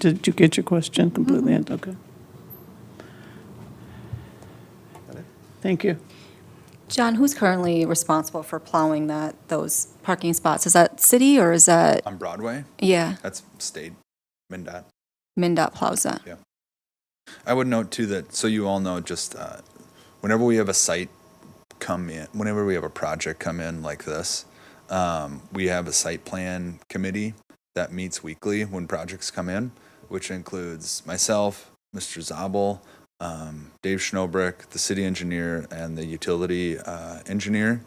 Did you get your question completely? Mm-hmm. in- Okay. Thank you. John, who's currently responsible for plowing that, those parking spots? Is that city or is that, on Broadway. yeah, That's state MnDOT. MinDOT plows that? I would note too that so you all know just uh, whenever we have a site come in, whenever we have a project come in like this, um, we have a site plan committee that meets weekly when projects come in, which includes myself, Mr. Zabel, um, Dave Schnobrick, the city engineer, and the utility uh, engineer.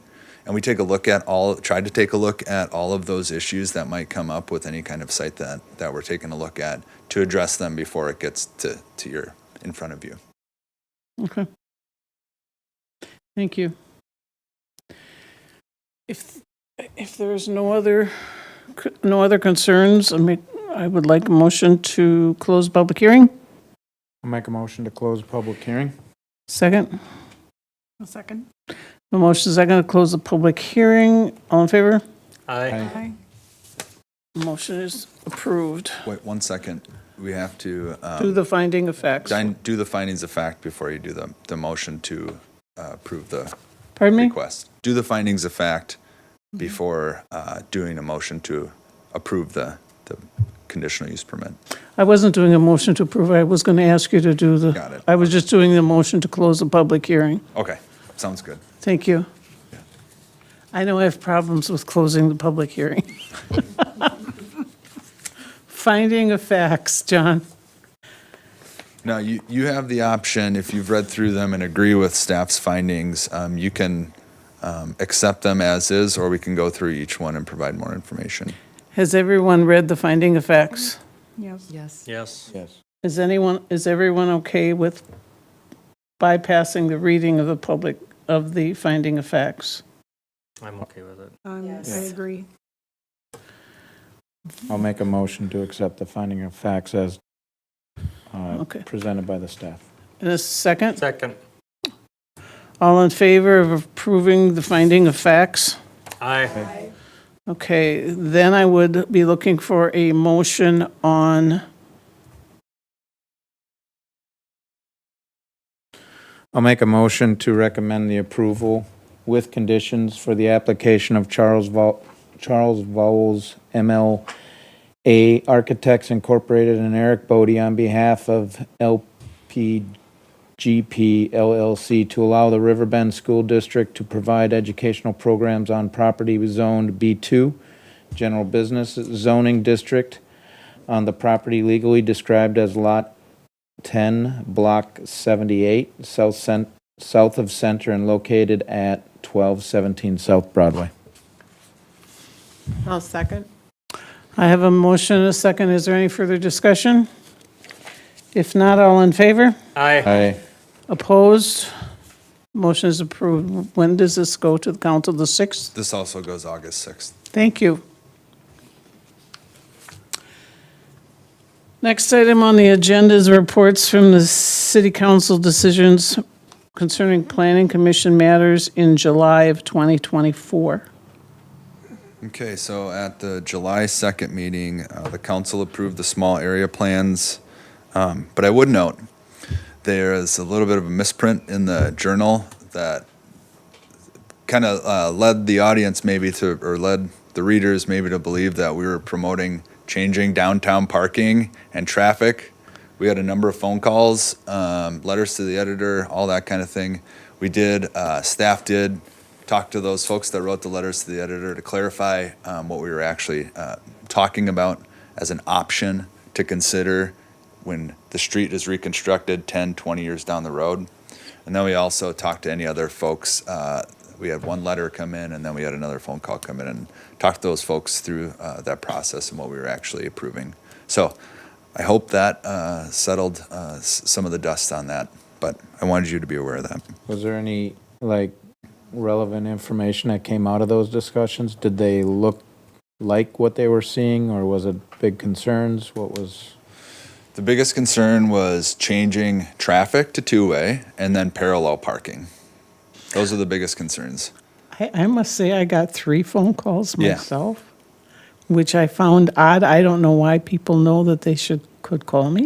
And we take a look at all, tried to take a look at all of those issues that might come up with any kind of site that, that we're taking a look at to address them before it gets to, to your, in front of you. Okay. Thank you. If, if there's no other, no other concerns, I mean, I would like a motion to close public hearing. I'll make a motion to close public hearing. Second, A second. the motion is second to close the public hearing. All in favor? Aye. Motion is approved. Wait one second. We have to um, Do the finding of facts. din- do the findings of fact before you do the, the motion to uh, approve the Pardon me? request. Do the findings of fact before uh, doing a motion to approve the, the conditional use permit. I wasn't doing a motion to approve. I was going to ask you to do the. Got it. I was just doing the motion to close the public hearing. Okay, sounds good. Thank you. I know I have problems with closing the public hearing. Finding of facts, John. Now, you, you have the option, if you've read through them and agree with staff's findings, um, you can um, accept them as is, or we can go through each one and provide more information. Has everyone read the finding of facts? Yes. Yes. Yes. Yes. Is anyone, is everyone okay with bypassing the reading of the public, of the finding of facts? I'm okay with it. Um, I Yes. agree. I'll make a motion to accept the finding of facts as uh, Okay. presented by the staff. And a second? Second. All in favor of approving the finding of facts? Aye. Okay, then I would be looking for a motion on, I'll make a motion to recommend the approval with conditions for the application of Charles Vo, Charles Vowles MLA Architects Incorporated and Eric Bodie on behalf of LPGP LLC to allow the Riverbend School District to provide educational programs on property zoned B2, General Business Zoning District, on the property legally described as Lot 10, Block 78, south cent, south of Center and located at 1217 South Broadway. I'll second. I have a motion and a second. Is there any further discussion? If not, all in favor? Aye. Aye. Opposed? Motion is approved. When does this go to the council? The 6th? This also goes August 6th. Thank you. Next item on the agenda is reports from the city council decisions concerning planning commission matters in July of 2024. Okay, so at the July 2nd meeting, uh, the council approved the small area plans. Um, But I would note, there is a little bit of a misprint in the journal that kind of uh, led the audience maybe to, or led the readers maybe to believe that we were promoting changing downtown parking and traffic. We had a number of phone calls, um, letters to the editor, all that kind of thing. We did, uh, staff did talk to those folks that wrote the letters to the editor to clarify um, what we were actually uh, talking about as an option to consider when the street is reconstructed 10, 20 years down the road. And then we also talked to any other folks. Uh, we had one letter come in, and then we had another phone call come in, and talked to those folks through uh, that process and what we were actually approving. So I hope that uh, settled uh, s- some of the dust on that, but I wanted you to be aware of that. Was there any, like, relevant information that came out of those discussions? Did they look like what they were seeing, or was it big concerns? What was, The biggest concern was changing traffic to two way and then parallel parking. Those are the biggest concerns. I, I must say, I got three phone calls Yeah. myself, which I found odd. I don't know why people know that they should could call me.